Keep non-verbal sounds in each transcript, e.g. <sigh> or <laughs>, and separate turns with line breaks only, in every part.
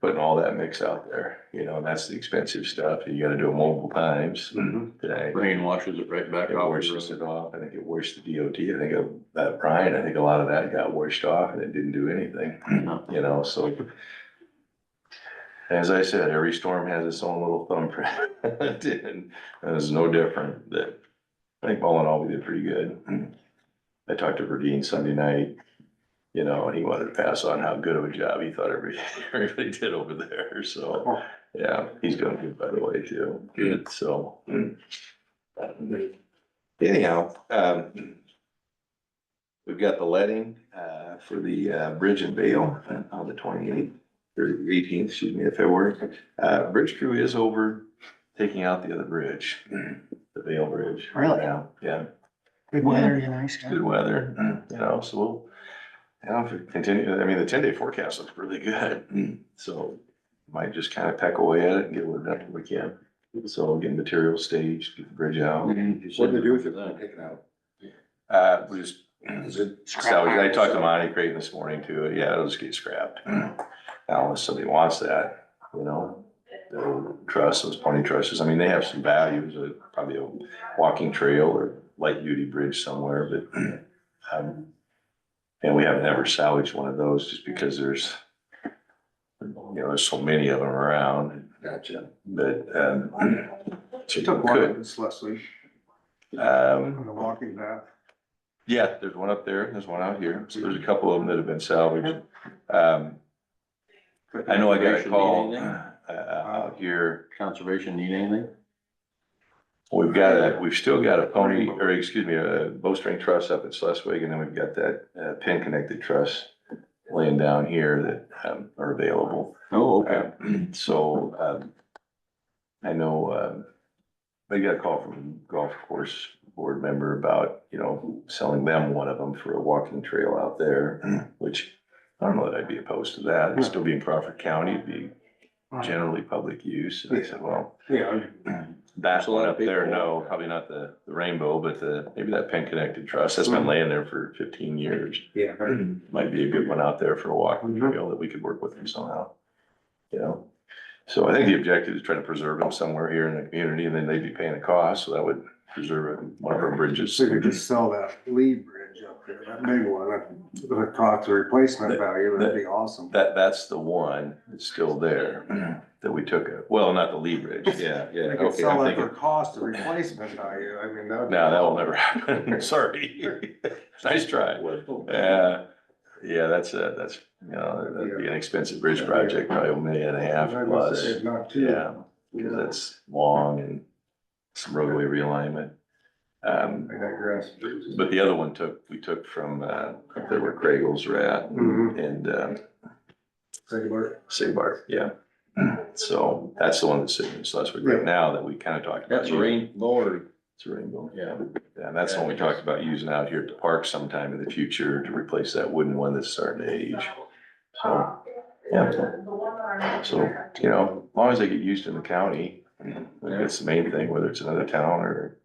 putting all that mix out there, you know, and that's the expensive stuff. You gotta do it multiple times today.
Rain washes it right back
It
off.
washes it off. I think it washed the DOT. I think of that Brian, I think a lot of that got washed off and it didn't do anything,
No.
you know, so. As I said, every storm has its own little thumbprint. <laughs> And it's no different that, I think all in all, we did pretty good. I talked to Verdeen Sunday night, you know, and he wanted to pass on how good of a job he thought everybody, <laughs> everybody did over there, so. Yeah, he's doing good, by the way, too.
Good.
So. Anyhow, um. We've got the letting, uh, for the, uh, bridge and bail on the twenty-eighth, or eighteenth, excuse me, of February. Uh, bridge crew is over taking out the other bridge, the bail bridge.
Really?
Yeah, yeah.
Good weather, you know, nice.
Good weather, you know, so we'll, you know, if it continue, I mean, the ten day forecast looks really good, so might just kind of peck away at it and get what done we can. So get material staged, get the bridge out.
What do they do with it?
Taken out.
Uh, we just,
Is it?
so I talked to Monty Creighton this morning too, yeah, it'll just get scrapped. <clears throat> Now, unless somebody wants that, you know, the truss, those pony trusses, I mean, they have some values, uh, probably a walking trail or light duty bridge somewhere, but, <clears throat> um, and we have never salvaged one of those just because there's, you know, there's so many of them around,
Gotcha.
but, um, <clears throat> so
She
you
took one of
could,
this last week
um,
on the walking path.
Yeah, there's one up there, there's one out here, so there's a couple of them that have been salvaged. Um, I know I got a
Conservation
call,
need
uh,
anything?
out here,
Conservation need anything?
we've got a, we've still got a pony, or excuse me, a bowstring truss up at Sleswig, and then we've got that, uh, pin connected truss laying down here that, um, are available.
Oh, okay.
Uh, <clears throat> So, um, I know, um, I got a call from golf course board member about, you know, selling them one of them for a walking trail out there, <clears throat> which I don't know that I'd be opposed to that. It'd still be in Crawford County, it'd be generally public use. And I said, well,
Yeah.
that one up there, no, probably not the, the rainbow, but the, maybe that pin connected trust that's been laying there for fifteen years.
Yeah.
Hmm. Might be a good one out there for a walking
Mm-hmm.
trail that we could work with them somehow. You know, so I think the objective is trying to preserve them somewhere here in the community and then they'd be paying the cost, so that would preserve one of our bridges.
So you could just sell that Lee Bridge up there, that big one, that, that cost the replacement value, that'd be awesome.
That, that's the one that's still
<clears throat>
there that we took, a- well, not the Lee
<laughs>
Bridge, yeah, yeah,
They could
okay, I'm
sell it for
thinking,
cost of replacement value, I mean, that.
no, that will never <laughs>
<laughs>
happen, sorry. Nice try. Yeah, yeah, that's a, that's, you know, that'd be an expensive bridge project, probably a million and a half
I would
plus.
say Not too.
Yeah, because that's long and some roadway realignment. Um,
I digress.
but the other one took, we took from, uh, up there where Craigles were at
Mhm.
and, um,
Say what?
Sabar, yeah. <clears throat> So that's the one that's sitting in Schleswig right now that we kind of talked about.
That's rainbow or,
It's a rainbow.
yeah.
And that's the one we talked about using out here at the park sometime in the future to replace that wooden one that's starting to age. So, yeah. So, you know, as long as they get used in the county, that's the main thing, whether it's another town or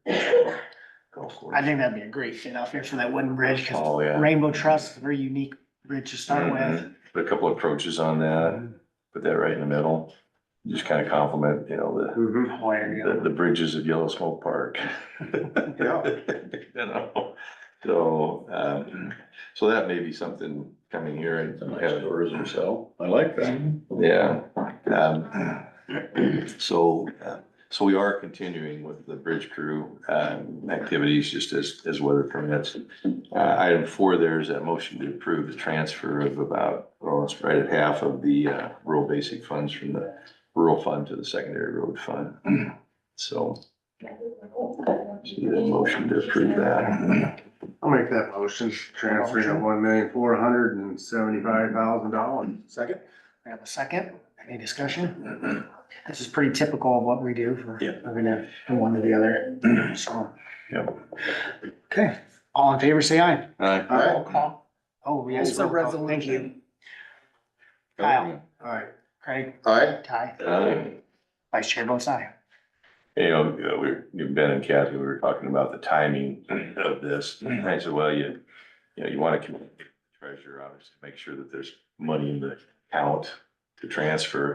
golf course.
I think that'd be a great fit out there for that wooden bridge, cause
Oh, yeah.
Rainbow Trust, is a very unique bridge to start with. Mm-hmm.
Mhm. Put a couple of approaches on that, put that right in the middle, just kind of complement, you know, the
Mhm.
Boy, you
the,
know,
the bridges of Yellow Smoke Park.
Yeah.
<laughs> You know, so, um, so that may be something coming here and have tourism, so,
I like that.
yeah. Um, So, uh, so we are continuing with the bridge crew, um, activities just as, as weather permits. Uh, item four, there's a motion to approve the transfer of about, well, it's right at half of the, uh, rural basic funds from the rural fund to the secondary road fund. So, see the motion to approve that.
I'll make that motion, transferring of one million, four hundred and seventy-five thousand dollars. Second?
I have a second, any discussion? This is pretty typical of what we do for,
Yeah.
we're gonna, from one to the other, <clears throat> so.
Yep.
Okay, all in favor, say aye.
Aye.
Aye.
Oh, yes,
It's a
roll call. thank you.
resolution.
Kyle,
Alright.
Craig,
Aye.
Ty,
Aye.
vice chair votes aye.
you know, you know, we were, Ben and Kathy, we were talking about the timing of this. I said, well, you, you know, you want to communicate with the treasurer, obviously, make sure that there's money in the account to transfer